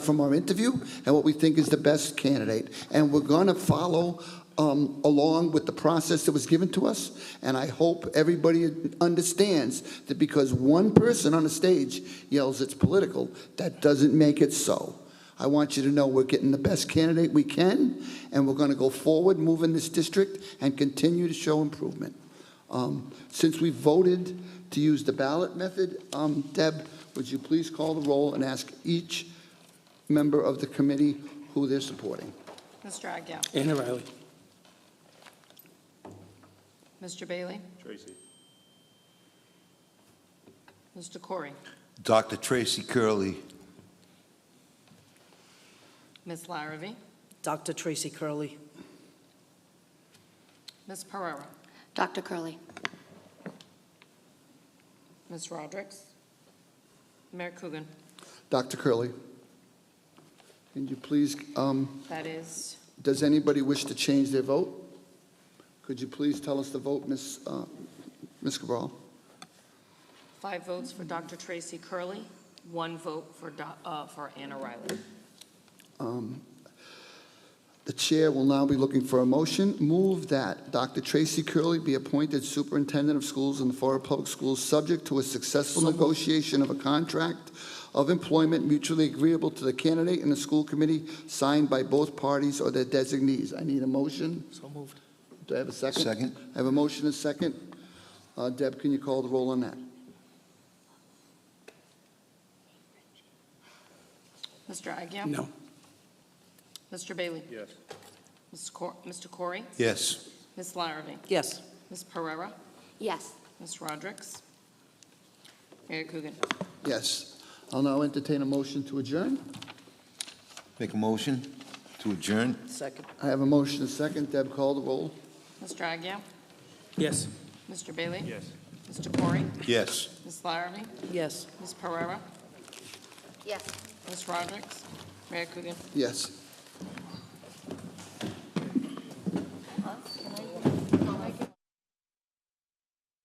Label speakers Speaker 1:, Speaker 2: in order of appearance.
Speaker 1: from our interview and what we think is the best candidate. And we're going to follow um, along with the process that was given to us. And I hope everybody understands that because one person on a stage yells it's political, that doesn't make it so. I want you to know we're getting the best candidate we can, and we're going to go forward, move in this district, and continue to show improvement. Um, Since we voted to use the ballot method, um, Deb, would you please call the roll and ask each member of the committee who they're supporting.
Speaker 2: Mr. Agia?
Speaker 3: Anna Riley.
Speaker 2: Mr. Bailey?
Speaker 3: Tracy.
Speaker 2: Mr. Corey?
Speaker 4: Dr. Tracy Curley,
Speaker 2: Ms. Larrabee?
Speaker 5: Dr. Tracy Curley,
Speaker 2: Ms. Pereira?
Speaker 6: Dr. Curley,
Speaker 2: Ms. Rodericks? Mayor Coogan?
Speaker 1: Dr. Curley, can you please, um,
Speaker 2: That is
Speaker 1: does anybody wish to change their vote? Could you please tell us the vote, Ms. uh, Ms. Cabral?
Speaker 2: five votes for Dr. Tracy Curley, one vote for, Do- uh, for Anna Riley.
Speaker 1: Um, The chair will now be looking for a motion. Move that Dr. Tracy Curley be appointed superintendent of schools in the Florida Public Schools, subject to a successful negotiation of a contract of employment mutually agreeable to the candidate and the school committee, signed by both parties or their designees. I need a motion.
Speaker 3: So moved.
Speaker 1: Do I have a second?
Speaker 4: Second.
Speaker 1: I have a motion and a second. Uh, Deb, can you call the roll on that?
Speaker 2: Mr. Agia?
Speaker 3: No.
Speaker 2: Mr. Bailey?
Speaker 3: Yes.
Speaker 2: Mr. Cor- Mr. Corey?
Speaker 4: yes.
Speaker 2: Ms. Larrabee?
Speaker 5: yes.
Speaker 2: Ms. Pereira?
Speaker 6: yes.
Speaker 2: Ms. Rodericks? Mayor Coogan?
Speaker 1: Yes. I'll now entertain a motion to adjourn.
Speaker 4: Make a motion to adjourn?
Speaker 5: Second,
Speaker 1: I have a motion and a second. Deb, call the roll.
Speaker 2: Mr. Agia?
Speaker 3: Yes.
Speaker 2: Mr. Bailey?
Speaker 3: Yes.
Speaker 2: Mr. Corey?
Speaker 4: Yes.
Speaker 2: Ms. Larrabee?
Speaker 5: yes.
Speaker 2: Ms. Pereira?
Speaker 6: Yes.
Speaker 2: Ms. Rodericks? Mayor Coogan?
Speaker 1: Yes.